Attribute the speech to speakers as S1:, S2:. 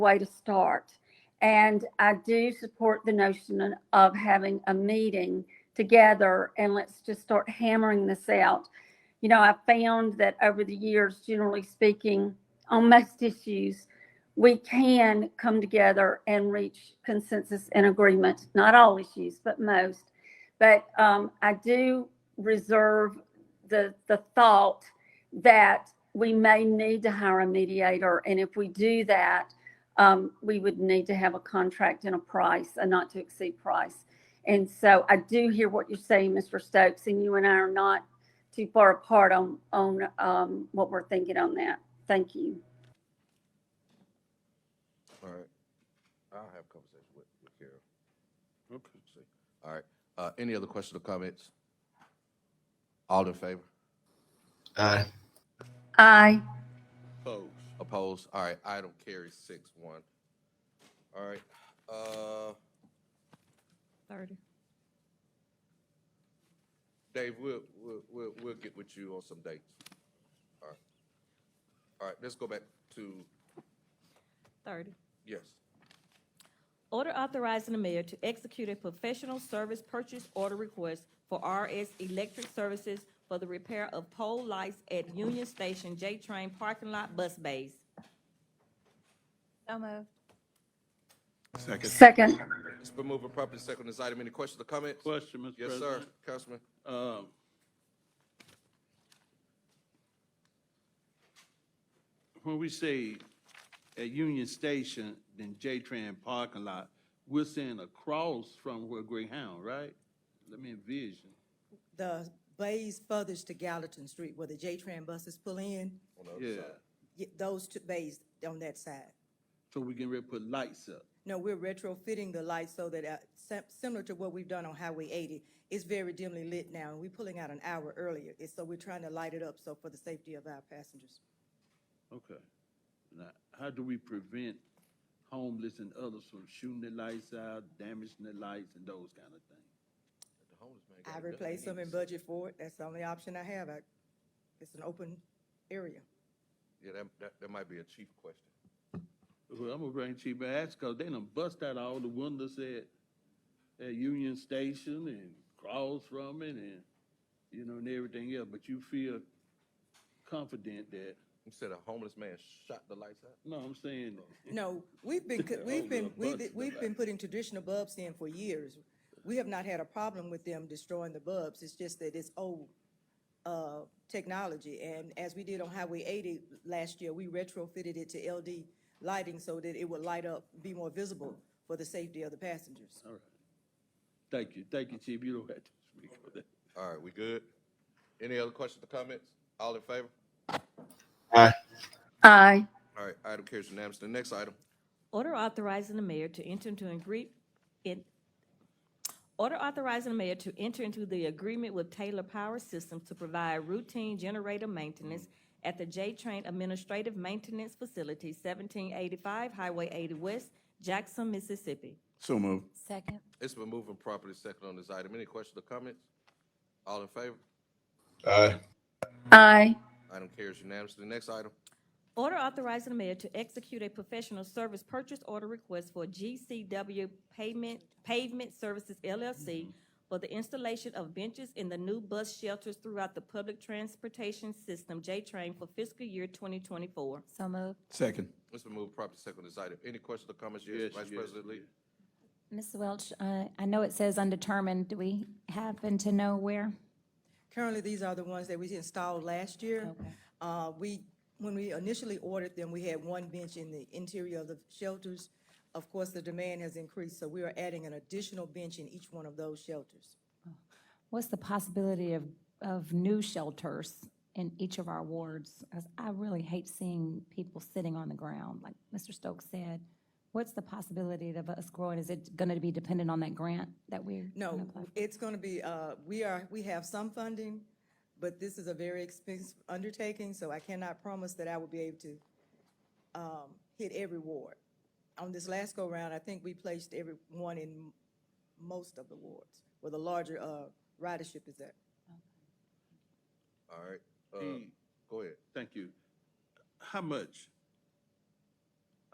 S1: way to start. And I do support the notion of having a meeting together and let's just start hammering this out. You know, I found that over the years, generally speaking, on most issues, we can come together and reach consensus and agreement, not all issues, but most. But um, I do reserve the, the thought that we may need to hire a mediator. And if we do that, um, we would need to have a contract and a price, a not to exceed price. And so I do hear what you're saying, Mr. Stokes, and you and I are not too far apart on, on, um, what we're thinking on that. Thank you.
S2: All right. I'll have a conversation with, with Carol. Okay. All right. Uh, any other questions or comments? All in favor?
S3: Aye.
S1: Aye.
S2: Opposed. Opposed. All right. Item carries six one. All right. Uh,
S4: Thirty.
S2: Dave, we'll, we'll, we'll, we'll get with you on some dates. All right. All right. Let's go back to,
S4: Thirty.
S2: yes.
S4: Order authorizing the mayor to execute a professional service purchase order request for RS Electric Services for the repair of pole lights at Union Station J-Train Parking Lot Bus Bays.
S5: So moved.
S6: Second.
S1: Second.
S2: It's been moved and properly second on this item. Any questions or comments?
S6: Question, Mr.
S2: Yes, sir.
S6: President.
S2: Councilman.
S6: Um, When we say at Union Station, then J-Tran parking lot, we're saying across from where Greyhound, right? Let me envision.
S7: the bays furthest to Gallatin Street where the J-Tran buses pull in,
S2: on the other
S6: Yeah,
S2: side.
S7: y- those two bays on that side.
S6: so we can really put lights up.
S7: No, we're retrofitting the lights so that, uh, sim- similar to what we've done on Highway 80, it's very dimly lit now, and we're pulling out an hour earlier. It's, so we're trying to light it up so for the safety of our passengers.
S6: Okay. Now, how do we prevent homeless and others from shooting their lights out, damaging their lights and those kind of things?
S7: I replace them and budget for it. That's the only option I have. I- It's an open area.
S2: Yeah, that, that, that might be a chief question.
S6: Well, I'm gonna bring Chief Bass, cause they done bust out all the windows at, at Union Station and cross from it and, you know, and everything else, but you feel confident that,
S2: You said a homeless man shot the lights out?
S6: no, I'm saying,
S7: No, we've been, co-
S6: Yeah,
S7: we've
S6: hold
S7: been,
S6: up,
S7: we've,
S6: bugs
S7: been-
S6: in the
S7: we've been
S6: back.
S7: putting traditional bulbs in for years. We have not had a problem with them destroying the bulbs, it's just that it's old, uh, technology. And as we did on Highway eighty last year, we retrofitted it to LD lighting so that it would light up, be more visible for the safety of the passengers.
S6: all right. Thank you, thank you, Chief, you don't have to speak on that.
S2: All right, we good? Any other questions or comments? All in favor?
S3: Aye.
S1: Aye.
S2: All right, item carries unanimously. The next item,
S4: Order authorizing the mayor to enter into an agree, in, order authorizing the mayor to enter into the agreement with Taylor Power Systems to provide routine generator maintenance at the J-Train Administrative Maintenance Facility, seventeen eighty-five Highway eighty West, Jackson, Mississippi.
S6: So moved.
S5: Second.
S2: it's been moving properly second on this item. Any questions or comments? All in favor?
S3: Aye.
S1: Aye.
S2: Item carries unanimously. The next item,
S4: Order authorizing the mayor to execute a professional service purchase order request for GCW Pavement, Pavement Services LLC for the installation of benches in the new bus shelters throughout the public transportation system, J-Train, for fiscal year 2024.
S5: So moved.
S8: Second.
S2: it's been moved properly second on this item. Any questions or comments? Yes,
S6: Yes,
S2: Vice
S6: yes,
S2: President Lee?
S6: yes.
S5: Ms. Welch, uh, I know it says undetermined. Do we happen to know where?
S7: Currently, these are the ones that we installed last year. Uh, we, when we initially ordered them, we had one bench in the interior of the shelters. Of course, the demand has increased, so we are adding an additional bench in each one of those shelters.
S5: What's the possibility of, of new shelters in each of our wards? 'Cause I really hate seeing people sitting on the ground, like Mr. Stokes said. What's the possibility of us growing? Is it gonna be dependent on that grant that we're?
S7: No,
S5: gonna apply for?
S7: it's gonna be, uh, we are, we have some funding, but this is a very expensive undertaking, so I cannot promise that I will be able to, um, hit every ward. On this last go-round, I think we placed everyone in m- most of the wards, where the larger, uh, ridership is at.
S2: All right, uh,
S6: Hey,
S2: go ahead.
S6: Thank you. How much